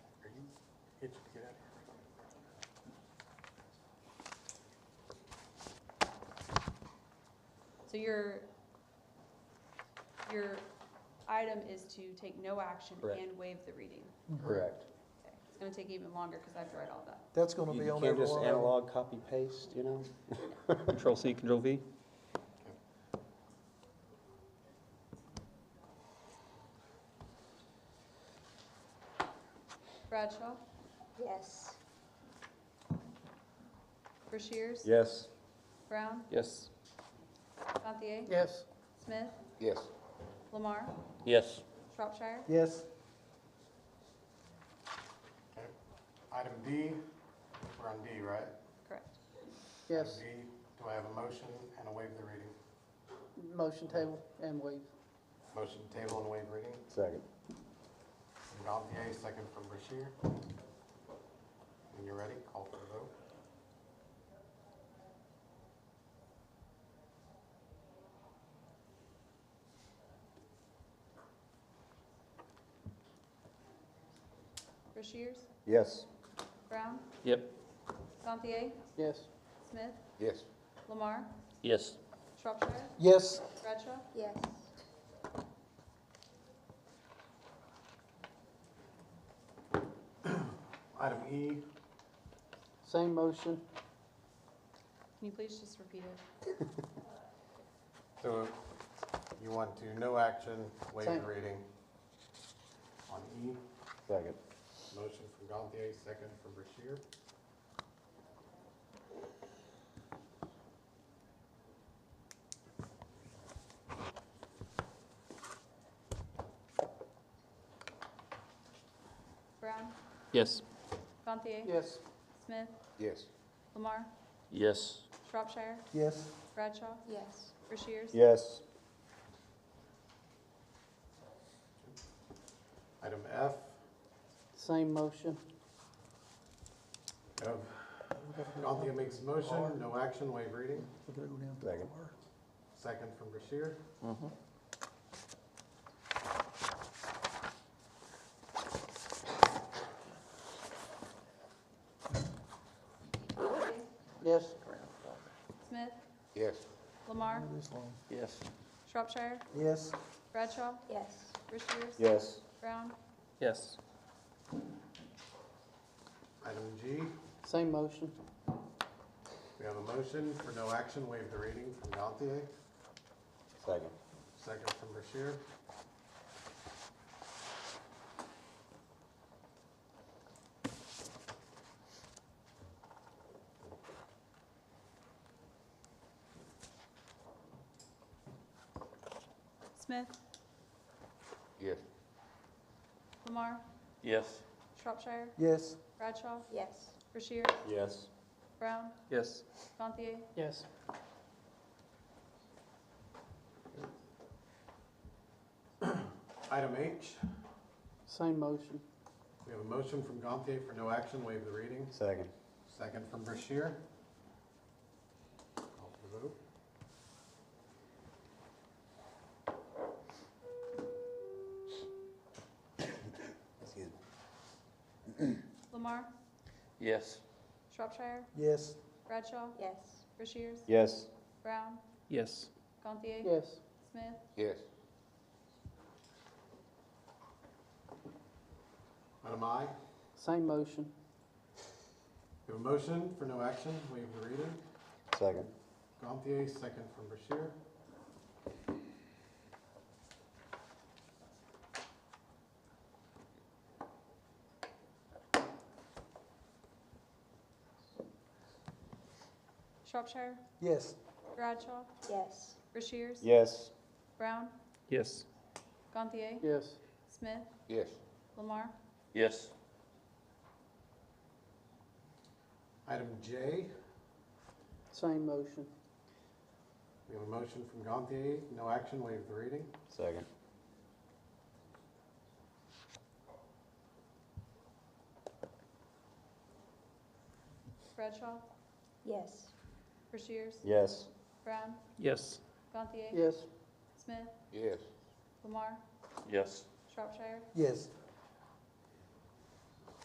Get you to get out of here. So your, your item is to take no action Correct. and waive the reading. Correct. Okay. It's gonna take even longer because I have to write all that. That's gonna be You on can't every just one of them. analog copy paste, you know? Control C, Control V. Bradshaw, Yes. Rushiers, Yes. Brown, Yes. Gantier, Yes. Smith, Yes. Lamar, Yes. Shropshire. Yes. Okay. Item D, we're on D, right? Correct. Yes, D, do I have a motion and a waive the reading? motion table and waive. Motion to table and waive reading Second. from Gantier, second from Bashir. When you're ready, call for the vote. Rushiers, Yes. Brown, Yep. Gantier, Yes, Smith, Yes. Lamar, Yes. Shropshire, Yes. Bradshaw, Yes. Item E, same motion. can you please just repeat it? so you want to no action, waive the Same. reading. On E, Second. motion from Gantier, second from Bashir. Brown, Yes. Gantier, Yes, Smith, Yes. Lamar, Yes. Shropshire, Yes. Bradshaw, Yes. Rushiers, Yes. Item F, same motion. um, Gantier makes a motion, no action, waive reading. Second. Second from Bashir. Gantier, Yes, Smith, Yes. Lamar, Yes. Shropshire, Yes. Bradshaw, Yes. Rushiers, Yes. Brown, Yes. Item G, same motion. we have a motion for no action, waive the reading from Gantier, Second. second from Bashir. Smith, Yes. Lamar, Yes. Shropshire, Yes. Bradshaw, Yes. Rushier, Yes. Brown, Yes. Gantier, Yes, Item H, same motion. we have a motion from Gantier for no action, waive the reading, Second. second from Bashir. Call for the vote. Excuse me. Lamar, Yes. Shropshire, Yes. Bradshaw, Yes. Rushiers, Yes. Brown, Yes. Gantier, Yes, Smith, Yes. Item I, same motion. we have a motion for no action, waive the reading, Second. Gantier, second from Bashir. Shropshire, Yes. Bradshaw, Yes. Rushiers, Yes. Brown, Yes. Gantier, Yes, Smith, Yes. Lamar, Yes. Item J, same motion. we have a motion from Gantier, no action, waive the reading, Second. Bradshaw, Yes. Rushiers, Yes. Brown, Yes. Gantier, Yes, Smith, Yes. Lamar, Yes. Shropshire, Yes.